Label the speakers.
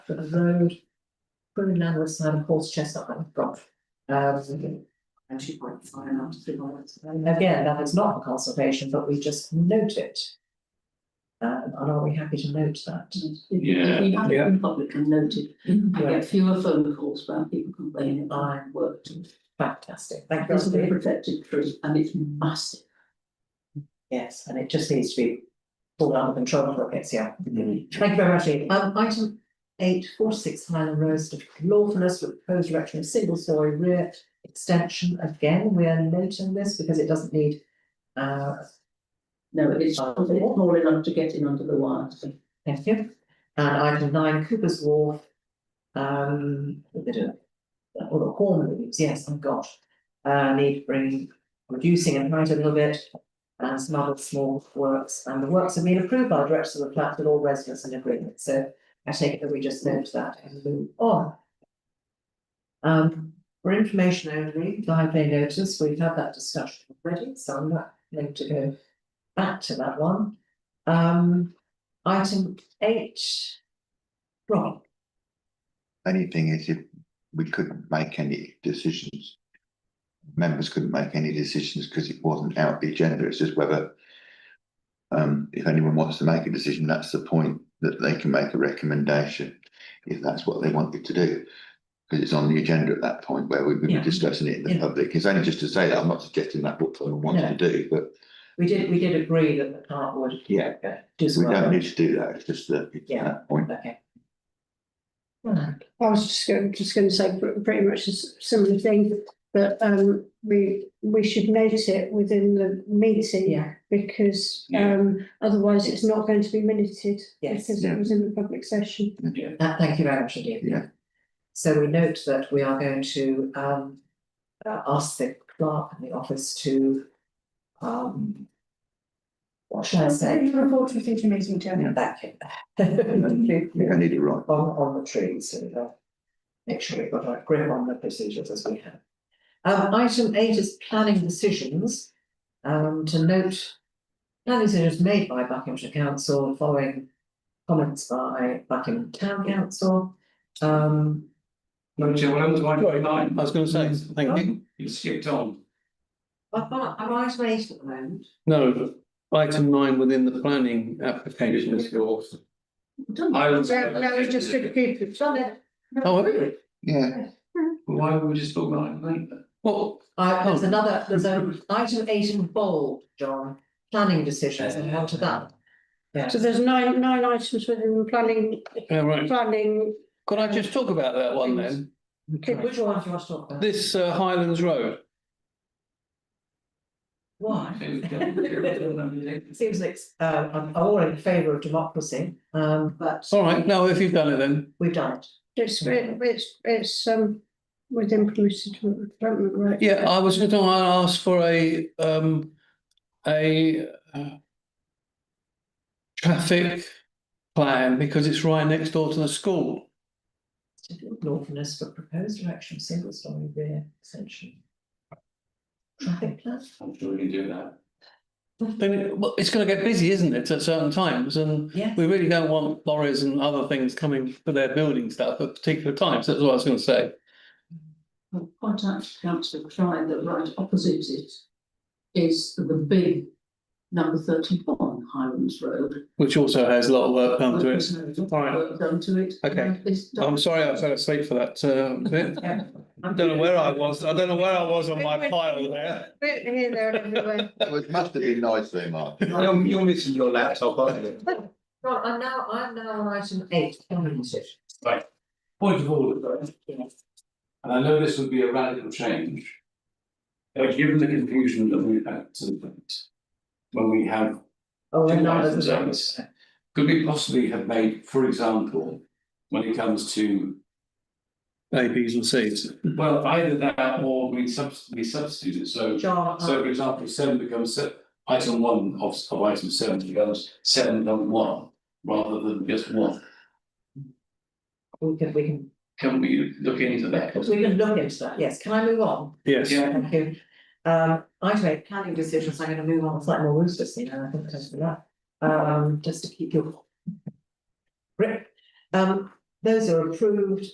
Speaker 1: for the road. Putting land with some horse chestnut and broth. Um,
Speaker 2: and two point five and up to three points.
Speaker 1: and again, that is not a consultation, but we just note it. Um, and are we happy to note that?
Speaker 3: Yeah.
Speaker 2: You have it in public and noted, I
Speaker 1: Yeah.
Speaker 2: get fewer phone calls about people complaining that I worked.
Speaker 1: Fantastic, thank
Speaker 2: This is a
Speaker 1: you.
Speaker 2: protected tree and it's massive.
Speaker 1: Yes, and it just needs to be pulled under control before it gets here. Thank you very much, Ian. Um, item eight, four, six Highland Road, certificate of lawfulness with proposed erection of single story rear extension. Again, we are noting this because it doesn't need uh,
Speaker 2: No, it's, it's small enough to get in under the wire.
Speaker 1: Thank you. And item nine, Cooper's Wharf. Um, a bit of, or the horn moves, yes, I've got. Uh, need bringing, reducing in height a little bit. And some other small works, and the works have been approved by the directors of the plat with all residents in agreement, so I take it that we just note that and move on. Um, for information only, live day notice, we've had that discussion already, so I'm not going to go back to that one. Um, Item eight. Rob,
Speaker 4: Only thing is if we couldn't make any decisions. Members couldn't make any decisions because it wasn't out the agenda. It's just whether. Um, if anyone wants to make a decision, that's the point that they can make a recommendation, if that's what they wanted to do. Because it's on the agenda at that point where we would be
Speaker 1: Yeah.
Speaker 4: discussing it in the
Speaker 1: Yeah.
Speaker 4: public. It's only just to say that I'm not suggesting that what someone wants to do, but
Speaker 1: we did, we did agree that the clerk would
Speaker 4: yeah,
Speaker 1: uh, do
Speaker 4: we
Speaker 1: some
Speaker 4: don't
Speaker 1: work.
Speaker 4: need to do that. It's just that it's
Speaker 1: Yeah.
Speaker 4: that point.
Speaker 1: Okay. Right,
Speaker 5: I was just going, just going to say pr- pretty much a s- similar thing, but um, we, we should note it within the meeting.
Speaker 1: yeah,
Speaker 5: Because
Speaker 3: Yeah.
Speaker 5: um, otherwise it's not going to be minuted.
Speaker 1: Yes.
Speaker 5: Because
Speaker 4: Yeah.
Speaker 5: it was in the public session.
Speaker 1: that, Uh, thank you very much indeed.
Speaker 4: Yeah.
Speaker 1: So we note that we are going to um uh, ask the clerk and the office to um. What should I say?
Speaker 5: report to the future meeting, Chair.
Speaker 1: Back in. Thank
Speaker 4: We
Speaker 1: you.
Speaker 4: don't need it right.
Speaker 1: on, on the trees and uh, make sure we've got our grip on the procedures as we have. Um, item eight is planning decisions. Um, to note, planning decisions made by Buckinghamshire Council following comments by Buckingham Town Council. Um,
Speaker 3: Chair, well, I'm on to item nine.
Speaker 6: I was going to say, thank you.
Speaker 3: You skipped on.
Speaker 1: I've got, I'm on item eight at the moment.
Speaker 6: No, item nine within the planning application is yours.
Speaker 3: I was.
Speaker 5: That was just a group of.
Speaker 6: Oh, really?
Speaker 4: Yeah,
Speaker 3: Why were we just talking about item eight then?
Speaker 6: Well,
Speaker 1: Uh, there's another, there's a item eight in bold, John, planning decisions, and on to that.
Speaker 5: So there's nine, nine items within the planning,
Speaker 6: yeah, right.
Speaker 5: planning.
Speaker 6: Could I just talk about that one then?
Speaker 1: Which one do you want to talk about?
Speaker 6: This uh, Highlands Road,
Speaker 1: Why?
Speaker 3: Why?
Speaker 1: Seems like, uh, I'm all in favour of democracy, um, but
Speaker 6: all right, no, if you've done it then,
Speaker 1: we've done it.
Speaker 5: It's, it's, it's um, within permitted development, right?
Speaker 6: yeah, I was going to ask for a, um, a uh, traffic plan because it's right next door to the school.
Speaker 1: Lawfulness for proposed direction, single story rear extension. Traffic plan,
Speaker 3: I'm sure we can do that.
Speaker 6: Then, it- well, it's going to get busy, isn't it, at certain times, and
Speaker 1: yeah,
Speaker 6: We really don't want lorries and other things coming for their building stuff at particular times, that's what I was gonna say.
Speaker 2: Well, Quite actually, councillor Clyde, that right opposite it is the big number thirty-one Highlands Road.
Speaker 6: Which also has a lot of work done to it.
Speaker 2: There's no
Speaker 6: Alright.
Speaker 2: Work done to it.
Speaker 6: Okay.
Speaker 2: And it's done.
Speaker 6: I'm sorry, I fell asleep for that, uh, bit.
Speaker 1: Yeah.
Speaker 6: I don't know where I was, I don't know where I was on my pile there.
Speaker 5: Here, there, and everywhere.
Speaker 4: it was- must have been nice though, Mark.
Speaker 3: You're, you're missing your laptop, aren't you?
Speaker 1: right, I'm now, I'm now on item eight, planning decisions.
Speaker 3: Point of order. And I know this would be a radical change. But given the confusion that we've had to the point, when we have
Speaker 1: Oh,
Speaker 3: Two
Speaker 1: and now
Speaker 3: items,
Speaker 1: there's a-
Speaker 3: Could we possibly have made, for example, when it comes to,
Speaker 6: A, Bs and Cs.
Speaker 3: well, either that or we substitute, we substitute it, so.
Speaker 1: John,
Speaker 3: So
Speaker 1: uh,
Speaker 3: for example, seven becomes, se- item one of, of item seven becomes seven becomes one, rather than just one.
Speaker 1: we can, we can,
Speaker 3: Can we look into that?
Speaker 1: we can look into that, yes, can I move on?
Speaker 6: Yes,
Speaker 3: Yeah.
Speaker 1: Thank you. Um, item eight, planning decisions, I'm gonna move on, it's like more rooster scene, and I think that's for that. Um, just to keep your. Grip, um, Those are approved